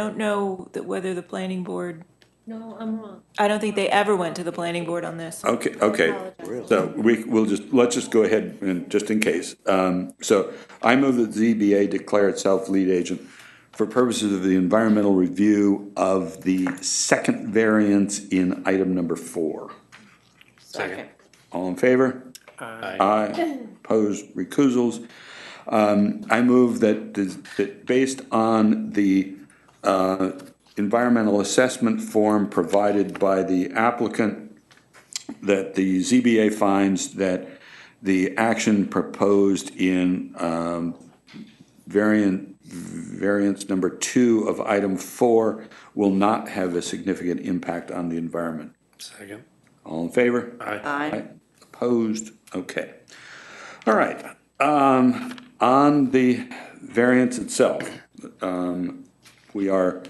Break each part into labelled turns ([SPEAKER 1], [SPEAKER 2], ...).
[SPEAKER 1] don't know that whether the planning board,
[SPEAKER 2] No, I'm wrong.
[SPEAKER 1] I don't think they ever went to the planning board on this.
[SPEAKER 3] Okay, okay.
[SPEAKER 2] Apologize.
[SPEAKER 3] So we, we'll just, let's just go ahead and, just in case. Um, so I move that ZBA declare itself lead agent for purposes of the environmental review of the second variance in item number four.
[SPEAKER 4] Second.
[SPEAKER 3] All in favor? Aye. Opposed, recusals. Um, I move that, the- that based on the, uh, environmental assessment form provided by the applicant, that the ZBA finds that the action proposed in, um, variant, variance number two of item four will not have a significant impact on the environment.
[SPEAKER 4] Second.
[SPEAKER 3] All in favor?
[SPEAKER 4] Aye.
[SPEAKER 3] Aye. Opposed? Okay. All right. Um, On the variance itself, um, we are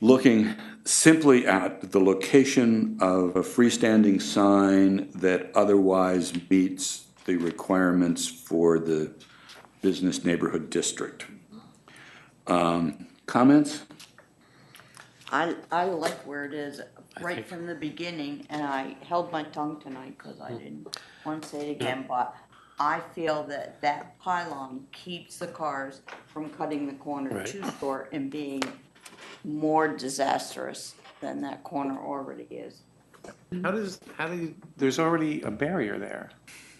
[SPEAKER 3] looking simply at the location of a freestanding sign that otherwise meets the requirements for the business neighborhood district. Um, Comments?
[SPEAKER 5] I, I like where it is right from the beginning, and I held my tongue tonight because
[SPEAKER 4] Hmm.
[SPEAKER 5] I didn't want to say it again, but I feel that that pylon keeps the cars from cutting the corner
[SPEAKER 4] Right.
[SPEAKER 5] too short and being more disastrous than that corner already is.
[SPEAKER 6] How does, how do you, there's already a barrier there.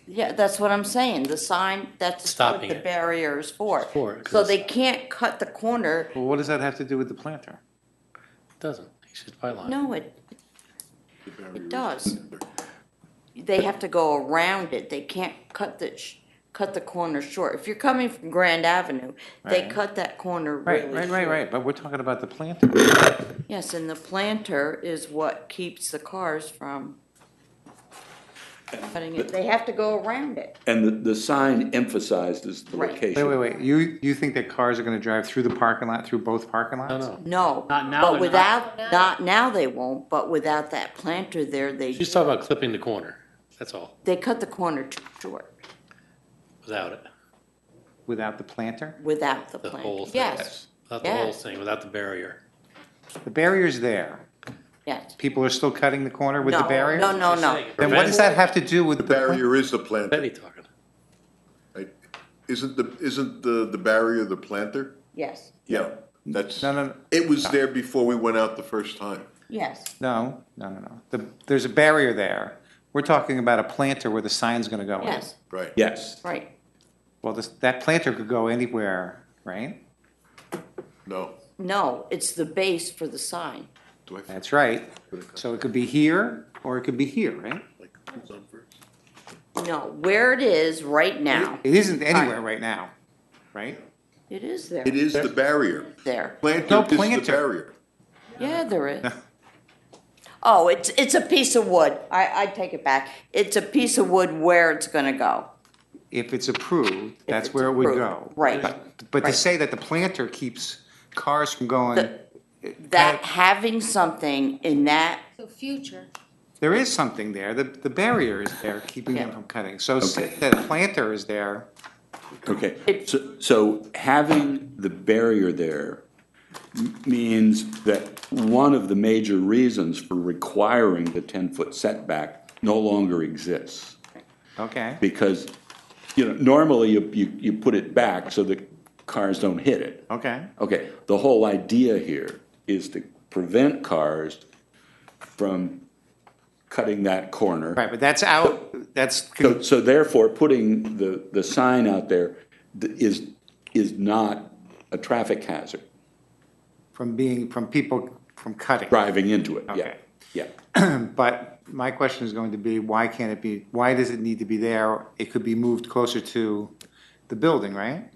[SPEAKER 5] Yeah, that's what I'm saying, the sign, that's what
[SPEAKER 4] Stopping
[SPEAKER 5] the
[SPEAKER 4] it.
[SPEAKER 5] barrier is for.
[SPEAKER 4] for it, 'cause
[SPEAKER 5] So
[SPEAKER 4] it's-
[SPEAKER 5] they can't cut the corner,
[SPEAKER 6] Well, what does that have to do with the planter?
[SPEAKER 4] Doesn't, it's just by line.
[SPEAKER 5] no, it, It does. They have to go around it, they can't cut the, sh- cut the corner short. If you're coming from Grand Avenue, they
[SPEAKER 6] Right.
[SPEAKER 5] cut that corner really
[SPEAKER 6] Right,
[SPEAKER 5] short.
[SPEAKER 6] right, right, right, but we're talking about the planter.
[SPEAKER 5] Yes, and the planter is what keeps the cars from cutting it, they have to go around it.
[SPEAKER 3] And the, the sign emphasizes the
[SPEAKER 5] Right.
[SPEAKER 3] location.
[SPEAKER 6] Wait, wait, wait, you, you think that cars are gonna drive through the parking lot, through both parking lots?
[SPEAKER 4] No, no.
[SPEAKER 5] No,
[SPEAKER 7] Not now,
[SPEAKER 5] but
[SPEAKER 7] they're
[SPEAKER 5] without, not now they won't, but without that planter there, they,
[SPEAKER 4] She's talking about clipping the corner, that's all,
[SPEAKER 5] they cut the corner too short
[SPEAKER 4] without it,
[SPEAKER 6] Without the planter?
[SPEAKER 5] without the
[SPEAKER 4] the
[SPEAKER 5] planter.
[SPEAKER 4] whole thing.
[SPEAKER 5] Yes,
[SPEAKER 4] Without the whole
[SPEAKER 5] Yes.
[SPEAKER 4] thing, without the barrier.
[SPEAKER 6] The barrier's there.
[SPEAKER 5] yes.
[SPEAKER 6] People are still cutting the corner with the
[SPEAKER 5] No,
[SPEAKER 6] barrier?
[SPEAKER 5] No, no, no.
[SPEAKER 6] Then what does that have to do with the?
[SPEAKER 7] The barrier is the planter.
[SPEAKER 4] Betty talking.
[SPEAKER 7] right? Isn't the, isn't the, the barrier the planter?
[SPEAKER 5] Yes,
[SPEAKER 7] Yeah, that's.
[SPEAKER 6] No, no, no.
[SPEAKER 7] It was there before we went out the first time.
[SPEAKER 5] yes.
[SPEAKER 6] No, no, no, no. The, there's a barrier there. We're talking about a planter where the sign's gonna go in.
[SPEAKER 5] Yes,
[SPEAKER 7] Right.
[SPEAKER 3] Yes.
[SPEAKER 5] right.
[SPEAKER 6] Well, this, that planter could go anywhere, right?
[SPEAKER 7] No.
[SPEAKER 5] No, it's the base for the sign.
[SPEAKER 7] Do I?
[SPEAKER 6] That's right. So it could be here, or it could be here, right?
[SPEAKER 7] Like, who's on first?
[SPEAKER 5] No, where it is right now,
[SPEAKER 6] It isn't anywhere right now, right?
[SPEAKER 5] it is there.
[SPEAKER 7] It is the barrier.
[SPEAKER 5] There.
[SPEAKER 7] Planter
[SPEAKER 6] No
[SPEAKER 7] is the
[SPEAKER 6] planter.
[SPEAKER 7] barrier.
[SPEAKER 5] Yeah, there is. Oh, it's, it's a piece of wood. I, I take it back. It's a piece of wood where it's gonna go.
[SPEAKER 6] If it's approved, that's
[SPEAKER 5] it's
[SPEAKER 6] where it would
[SPEAKER 5] approved,
[SPEAKER 6] go.
[SPEAKER 5] right,
[SPEAKER 6] But- But to
[SPEAKER 5] right.
[SPEAKER 6] say that the planter keeps cars from going,
[SPEAKER 5] The- That, having something in that,
[SPEAKER 2] So future,
[SPEAKER 6] there is something there, the, the barrier is there keeping them
[SPEAKER 5] Yeah.
[SPEAKER 6] from cutting. So say
[SPEAKER 3] Okay.
[SPEAKER 6] that a planter is there,
[SPEAKER 3] Okay,
[SPEAKER 5] It-
[SPEAKER 3] so, so having the barrier there m- means that one of the major reasons for requiring the ten-foot setback no longer exists.
[SPEAKER 6] okay?
[SPEAKER 3] Because, you know, normally you, you, you put it back so that cars don't hit it.
[SPEAKER 6] Okay,
[SPEAKER 3] Okay, the whole idea here is to prevent cars from cutting that corner.
[SPEAKER 6] right, but that's out, that's,
[SPEAKER 3] So, so therefore, putting the, the sign out there th- is, is not a traffic hazard,
[SPEAKER 6] from being, from people from cutting.
[SPEAKER 3] driving into it, yeah,
[SPEAKER 6] Okay.
[SPEAKER 3] yeah.
[SPEAKER 6] But my question is going to be, why can't it be, why does it need to be there? It could be moved closer to the building, right?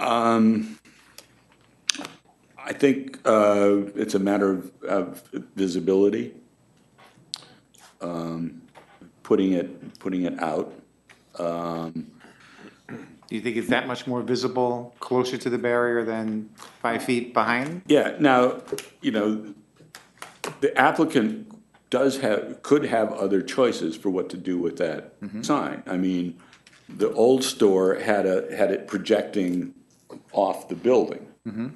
[SPEAKER 3] I think, uh, it's a matter of, of visibility. Um, Putting it, putting it out,
[SPEAKER 6] Do you think it's that much more visible closer to the barrier than five feet behind?
[SPEAKER 3] yeah, now, you know, the applicant does have, could have other choices for what to do with that sign. I mean, the old store had a, had it projecting off the building.